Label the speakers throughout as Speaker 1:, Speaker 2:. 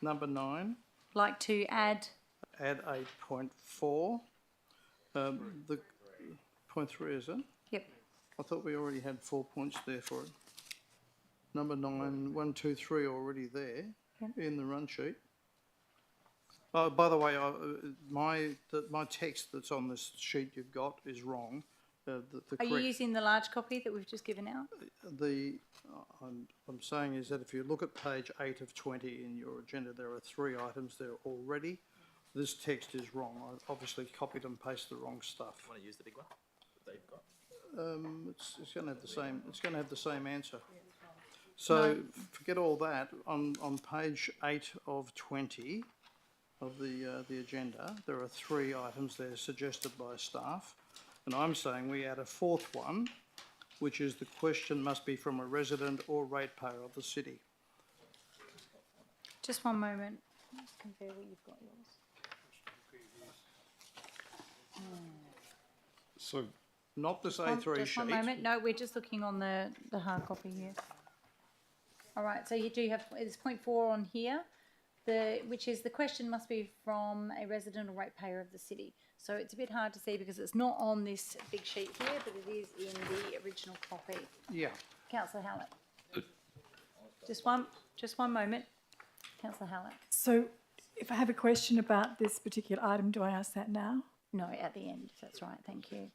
Speaker 1: Number nine,
Speaker 2: like to add,
Speaker 1: add eight point four. Um, the, point three, is it?
Speaker 2: yep,
Speaker 1: I thought we already had four points there for it. Number nine, one, two, three already there in the run sheet. Oh, by the way, I, uh, my, the, my text that's on this sheet you've got is wrong. Uh, the, the
Speaker 2: are you
Speaker 1: correct,
Speaker 2: using the large copy that we've just given out?
Speaker 1: the, uh, I'm, I'm saying is that if you look at page eight of twenty in your agenda, there are three items there already. This text is wrong. I obviously copied and pasted the wrong stuff. Um,
Speaker 3: Want to use the big one that you've got?
Speaker 1: It's, it's gonna have the same, it's gonna have the same answer. So forget all that, on, on page eight of twenty of the, uh, the agenda, there are three items there suggested by staff. And I'm saying we add a fourth one, which is the question must be from a resident or ratepayer of the city.
Speaker 2: Just one moment, let's compare what you've got yours.
Speaker 4: So,
Speaker 1: Not this
Speaker 2: One-
Speaker 1: A three
Speaker 2: Just one
Speaker 1: sheet.
Speaker 2: moment, no, we're just looking on the, the hard copy here. All right, so you do have, it's point four on here, the, which is the question must be from a resident or ratepayer of the city. So it's a bit hard to see because it's not on this big sheet here, but it is in the original copy.
Speaker 1: Yeah,
Speaker 2: Councillor Hallett. Just one, just one moment, councillor Hallett.
Speaker 5: So if I have a question about this particular item, do I ask that now?
Speaker 2: No, at the end, if that's right, thank you.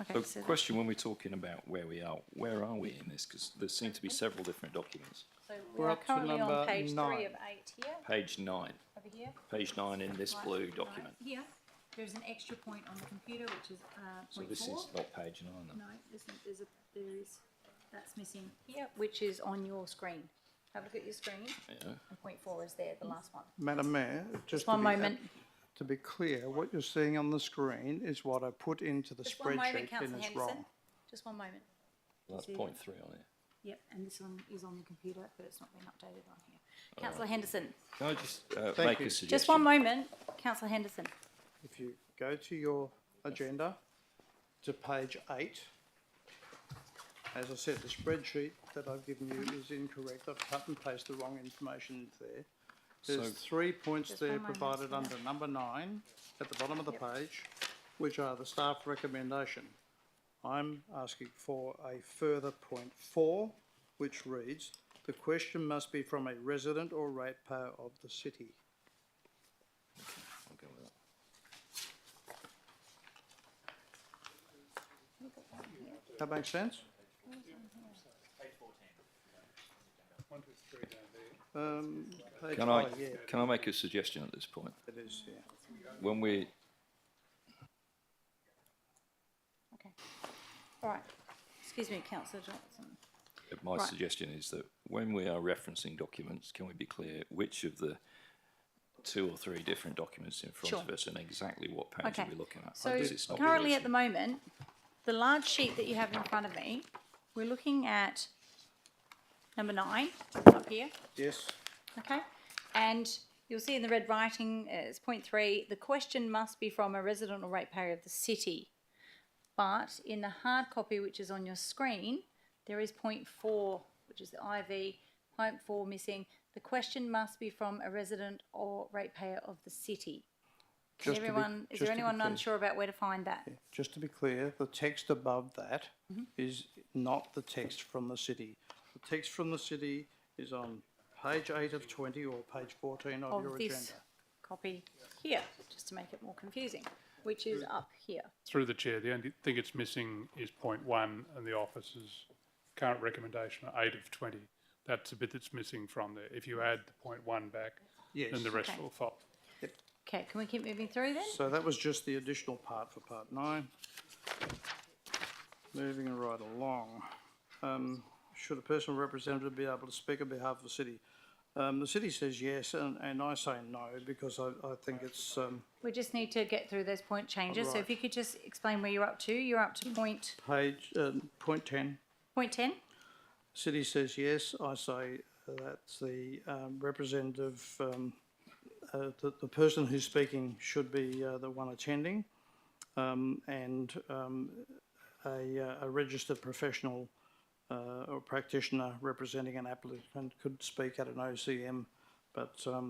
Speaker 2: Okay,
Speaker 4: the
Speaker 2: so, that-
Speaker 4: question when we're talking about where we are, where are we in this? Because there seem to be several different documents.
Speaker 2: so we
Speaker 1: We're
Speaker 2: are
Speaker 1: up to
Speaker 2: currently
Speaker 1: number
Speaker 2: on page
Speaker 1: nine.
Speaker 2: three of eight here,
Speaker 4: Page nine,
Speaker 2: over here.
Speaker 4: page nine in this
Speaker 2: Right,
Speaker 4: blue
Speaker 2: right
Speaker 4: document.
Speaker 2: Here, there's an extra point on the computer, which is, uh,
Speaker 4: So
Speaker 2: point
Speaker 4: this
Speaker 2: four.
Speaker 4: is not page nine. then.
Speaker 2: No, there's, n- there's a, there is, that's missing here, which is on your screen. Have a look at your screen,
Speaker 4: Yeah.
Speaker 2: and point four is there, the last one.
Speaker 1: Madam Mayor, just
Speaker 2: Just
Speaker 1: to
Speaker 2: one
Speaker 1: be, ab-
Speaker 2: moment,
Speaker 1: to be clear, what you're seeing on the screen is what I put into the
Speaker 2: just one moment,
Speaker 1: spreadsheet and
Speaker 2: councillor
Speaker 1: it's
Speaker 2: Henderson,
Speaker 1: wrong.
Speaker 2: just one moment.
Speaker 4: That's
Speaker 2: See?
Speaker 4: point three on it.
Speaker 2: Yep, and this one is on the computer, but it's not been updated on here. Councillor Henderson,
Speaker 4: Can I just uh,
Speaker 1: Thank
Speaker 4: make
Speaker 1: you.
Speaker 4: a
Speaker 1: Just
Speaker 4: suggestion?
Speaker 2: just one moment, councillor Henderson.
Speaker 1: If you go to your agenda to page eight, as I said, the spreadsheet that I've given you is incorrect. I've cut and pasted the wrong information into there. There's
Speaker 4: So-
Speaker 1: three points
Speaker 2: Just
Speaker 1: there
Speaker 2: one moment,
Speaker 1: provided
Speaker 2: yeah.
Speaker 1: under number nine at the bottom of the page, which are the staff recommendation. I'm asking for a further point four, which reads, the question must be from a resident or ratepayer of the city.
Speaker 4: I'll go with that.
Speaker 1: That makes sense? Um, page
Speaker 4: Can I,
Speaker 1: five, yeah,
Speaker 4: can I make a suggestion at this point?
Speaker 1: it is, yeah.
Speaker 4: When we,
Speaker 2: Okay, all right, excuse me, councillor Johnson.
Speaker 4: my
Speaker 2: Right.
Speaker 4: suggestion is that when we are referencing documents, can we be clear which of the two or three different documents in front
Speaker 2: Sure.
Speaker 4: of us and exactly what page
Speaker 2: Okay.
Speaker 4: are we looking at?
Speaker 2: So
Speaker 4: Because it's not
Speaker 2: currently
Speaker 4: really-
Speaker 2: at the moment, the large sheet that you have in front of me, we're looking at number nine up here,
Speaker 1: Yes,
Speaker 2: okay? And you'll see in the red writing, uh, it's point three, the question must be from a resident or ratepayer of the city. But in the hard copy, which is on your screen, there is point four, which is the IV, point four missing. The question must be from a resident or ratepayer of the city. Can
Speaker 1: Just to be-
Speaker 2: everyone, is
Speaker 1: just to
Speaker 2: there
Speaker 1: be
Speaker 2: anyone
Speaker 1: clear.
Speaker 2: unsure about where to find that?
Speaker 1: just to be clear, the text above that is not the text from the city. The text from the city is on page eight of twenty or page fourteen of your
Speaker 2: of
Speaker 1: agenda.
Speaker 2: this copy here, just to make it more confusing, which is up here.
Speaker 6: Through the chair, the only thing it's missing is point one and the officer's current recommendation, are eight of twenty. That's the bit that's missing from there. If you add the point one back,
Speaker 1: Yes.
Speaker 6: then the rest
Speaker 2: Okay.
Speaker 6: will follow.
Speaker 2: Okay, can we keep moving through then?
Speaker 1: So that was just the additional part for part nine. Moving right along. Um, should a personal representative be able to speak on behalf of the city? Um, the city says yes, and, and I say no, because I, I think it's, um,
Speaker 2: We just need to get through those point changes, so if you could just explain where you're up to, you're up to point,
Speaker 1: page, um, point ten.
Speaker 2: point ten?
Speaker 1: City says yes, I say that's the, um, representative, um, uh, the, the person who's speaking should be, uh, the one attending. Um, and, um, a, uh, a registered professional, uh, or practitioner representing an applicant could speak at an OCM but, um,